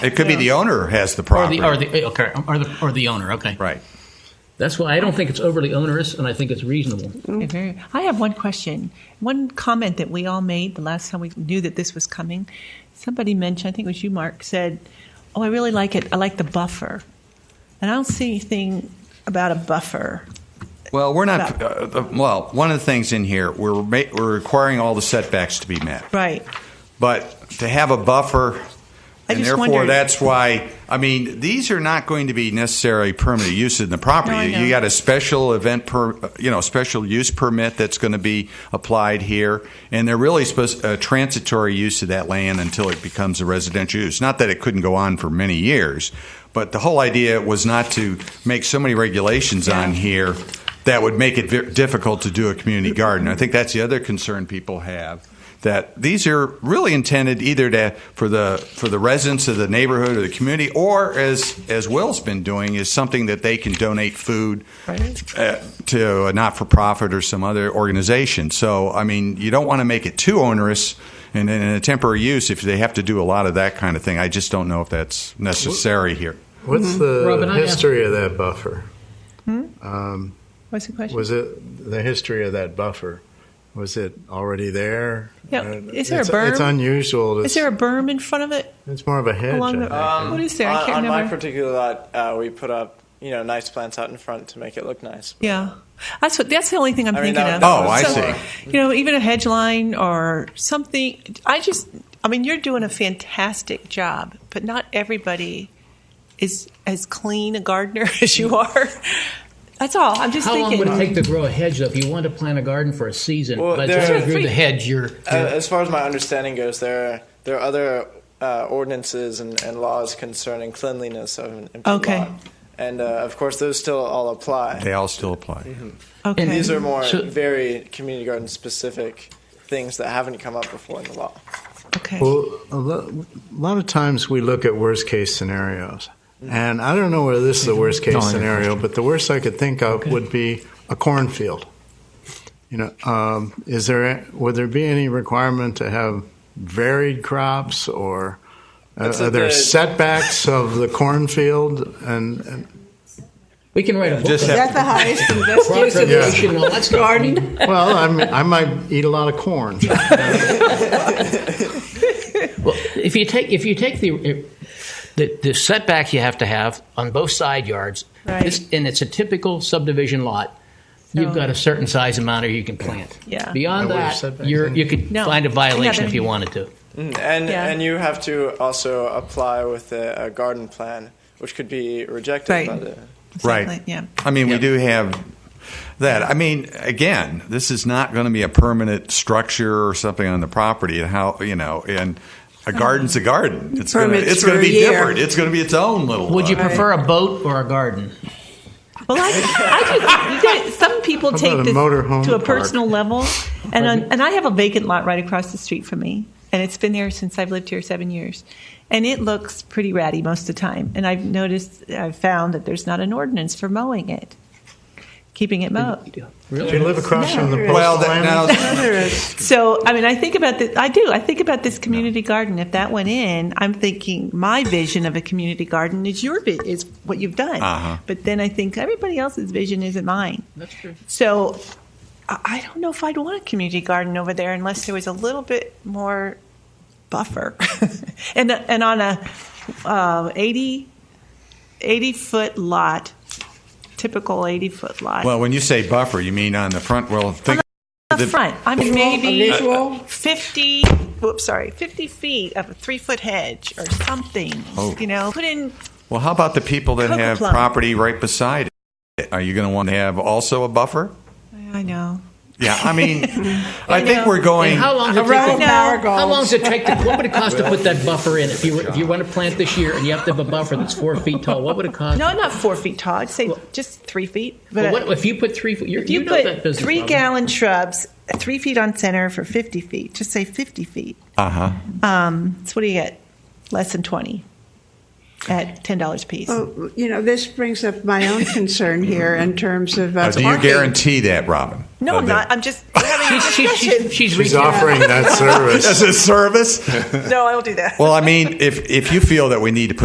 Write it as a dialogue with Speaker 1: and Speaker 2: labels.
Speaker 1: It could be the owner has the
Speaker 2: Or
Speaker 1: property.
Speaker 2: the, or the, okay, or the, or the owner, okay.
Speaker 1: right.
Speaker 2: That's why I don't think it's overly onerous, and I think it's reasonable.
Speaker 3: Okay, very- I have one question. One comment that we all made the last time we knew that this was coming. Somebody mentioned, I think it was you, Mark, said, "Oh, I really like it. I like the buffer," and I don't see anything about a buffer.
Speaker 1: Well, we're not. Uh, the- well, one of the things in here, we're ma- we're requiring all the setbacks to be met,
Speaker 3: Right.
Speaker 1: but to have a buffer.
Speaker 3: I
Speaker 1: And
Speaker 3: just
Speaker 1: therefore,
Speaker 3: wondered-
Speaker 1: that's why. I mean, these are not going to be necessary permanent use in the property.
Speaker 3: No, I know.
Speaker 1: You got a special event per, you know, special use permit that's going to be applied here, and they're really supposed a transitory use of that land until it becomes a residential use. Not that it couldn't go on for many years, but the whole idea was not to make so many regulations on here that would make it ve- difficult to do a community garden. I think that's the other concern people have that these are really intended either to for the for the residents of the neighborhood or the community, or as as Will's been doing, is something that they can donate food
Speaker 3: Right.
Speaker 1: uh, to a not for profit or some other organization. So I mean, you don't want to make it too onerous. And in a temporary use, if they have to do a lot of that kind of thing, I just don't know if that's necessary here.
Speaker 4: What's the
Speaker 2: Robin, I asked-
Speaker 4: history of that buffer?
Speaker 3: Hmm?
Speaker 4: Um,
Speaker 3: What's the question?
Speaker 4: Was it the history of that buffer? Was it already there?
Speaker 3: Yeah,
Speaker 4: Uh,
Speaker 3: is there a
Speaker 4: it's,
Speaker 3: berm?
Speaker 4: It's unusual. To,
Speaker 3: Is there a berm in front of it?
Speaker 4: It's more of a hedge.
Speaker 3: Along
Speaker 4: I
Speaker 3: the-
Speaker 4: think.
Speaker 3: What is there? I
Speaker 5: Um, on,
Speaker 3: can't
Speaker 5: on my
Speaker 3: remember.
Speaker 5: particular lot, uh, we put up you know nice plants out in front to make it look nice.
Speaker 3: Yeah. That's what. That's the only thing I'm
Speaker 5: I mean,
Speaker 3: thinking
Speaker 5: that-
Speaker 3: of.
Speaker 5: that
Speaker 1: Oh, I
Speaker 3: So,
Speaker 1: see.
Speaker 3: You know, even a hedge line or something. I just, I mean, you're doing a fantastic job, but not everybody is as clean a gardener as you are. That's all. I'm just
Speaker 2: How long
Speaker 3: thinking.
Speaker 2: would it take to grow a hedge, though? If you wanted to plant a garden for a season,
Speaker 5: Well,
Speaker 2: by the time
Speaker 5: there-
Speaker 2: you grew the hedge, you're,
Speaker 5: Uh, as far as my understanding goes, there are, there are other uh, ordinances and, and laws concerning cleanliness of an empty
Speaker 3: Okay.
Speaker 5: lot, and uh, of course those still all apply.
Speaker 1: They all still apply.
Speaker 3: okay.
Speaker 2: And
Speaker 5: These are more
Speaker 2: So-
Speaker 5: very community garden specific things that haven't come up before in the law.
Speaker 3: okay.
Speaker 4: Well, a lo- a lot of times we look at worst case scenarios. And I don't know whether this is the worst case scenario, but the worst I could think of would be a cornfield. You know, um, is there a- would there be any requirement to have varied crops or uh,
Speaker 5: That's a
Speaker 4: are there
Speaker 5: bit-
Speaker 4: setbacks of the cornfield? And, and
Speaker 2: we can write a book
Speaker 1: Just
Speaker 2: on
Speaker 1: have,
Speaker 3: the highest and best
Speaker 2: crop preservation and all that stuff.
Speaker 4: well, I'm, I might eat a lot of corn.
Speaker 2: Well, if you take if you take the the, the setback you have to have on both side yards,
Speaker 3: Right.
Speaker 2: this- and it's a typical subdivision lot. You've
Speaker 3: So-
Speaker 2: got a certain size amount, or you can plant.
Speaker 3: Yeah.
Speaker 2: Beyond
Speaker 4: No, what are
Speaker 2: that,
Speaker 4: setbacks
Speaker 2: you're,
Speaker 4: in?
Speaker 2: you could
Speaker 3: No.
Speaker 2: find a violation
Speaker 3: Another-
Speaker 2: if you wanted to.
Speaker 5: And
Speaker 3: Yeah.
Speaker 5: and you have to also apply with a, a garden plan, which could be rejected by
Speaker 3: Right.
Speaker 5: the
Speaker 1: right?
Speaker 3: Exactly, yeah.
Speaker 1: I mean, we do have that. I mean, again, this is not going to be a permanent structure or something on the property. And how you know, and a garden's a garden. It's going to
Speaker 6: Permits
Speaker 1: it's going
Speaker 6: for
Speaker 1: to
Speaker 6: a
Speaker 1: be
Speaker 6: year.
Speaker 1: different. It's going to be its own little.
Speaker 2: Would you
Speaker 1: uh,
Speaker 2: prefer a boat or a garden?
Speaker 3: Well, I, I think you guys, some people take
Speaker 4: about a
Speaker 3: this
Speaker 4: motorhome
Speaker 3: to a
Speaker 4: park?
Speaker 3: personal level, and on, and I have a vacant lot right across the street from me, and it's been there since I've lived here seven years, and it looks pretty ratty most of the time. And I've noticed, I've found that there's not an ordinance for mowing it, keeping it mowed.
Speaker 4: Do you live across from the postal
Speaker 1: Well, that,
Speaker 4: landing?
Speaker 1: now
Speaker 3: So, I mean, I think about this. I do. I think about this community garden. If that went in, I'm thinking my vision of a community garden is your vi- is what you've done.
Speaker 1: Uh-huh.
Speaker 3: But then I think everybody else's vision isn't mine.
Speaker 2: That's true.
Speaker 3: So I I don't know if I'd want a community garden over there unless there was a little bit more buffer. and and on a uh, 80, 80 foot lot, typical 80 foot lot.
Speaker 1: well, when you say buffer, you mean on the front? Well, think
Speaker 3: Up
Speaker 1: the-
Speaker 3: front, I mean maybe
Speaker 6: unusual?
Speaker 3: 50, whoops, sorry, 50 feet of a three foot hedge or something.
Speaker 1: Oh.
Speaker 3: You know, put in,
Speaker 1: Well, how about the people that
Speaker 3: Cocoa
Speaker 1: have
Speaker 3: plum.
Speaker 1: property right beside it? Are you going to want to have also a buffer?
Speaker 3: I know.
Speaker 1: Yeah, I mean, I
Speaker 3: know.
Speaker 1: think we're going.
Speaker 2: And how long does it
Speaker 6: Around
Speaker 2: take? To,
Speaker 3: know.
Speaker 2: how long
Speaker 6: Marigold.
Speaker 2: does it take to? What would it cost to put that buffer in? If you were, if you want to plant this year and you have to have a buffer that's four feet tall, what would it cost?
Speaker 3: No, not four feet tall. I'd say just three feet. But
Speaker 2: Well, what, if you put three, you're,
Speaker 3: If you,
Speaker 2: know that
Speaker 3: put
Speaker 2: business
Speaker 3: three
Speaker 2: model.
Speaker 3: gallon shrubs, three feet on center for 50 feet, just say 50 feet.
Speaker 1: Uh huh.
Speaker 3: Um, so what do you get? Less than 20. at ten dollars a piece.
Speaker 1: Oh.
Speaker 6: Well, Oh, you know, this brings up my own concern here in terms of. uh,
Speaker 1: Now, Uh, do you guarantee that, Robin?
Speaker 3: No,
Speaker 1: Uh,
Speaker 3: I'm
Speaker 1: that-
Speaker 3: not. I'm just we're having a
Speaker 2: She- she- she-
Speaker 3: discussion.
Speaker 2: she's
Speaker 4: She's
Speaker 2: reaching out.
Speaker 4: offering that service.
Speaker 1: As a service?
Speaker 3: No, I don't do that.
Speaker 1: Well, I mean, if, if you feel that we need to put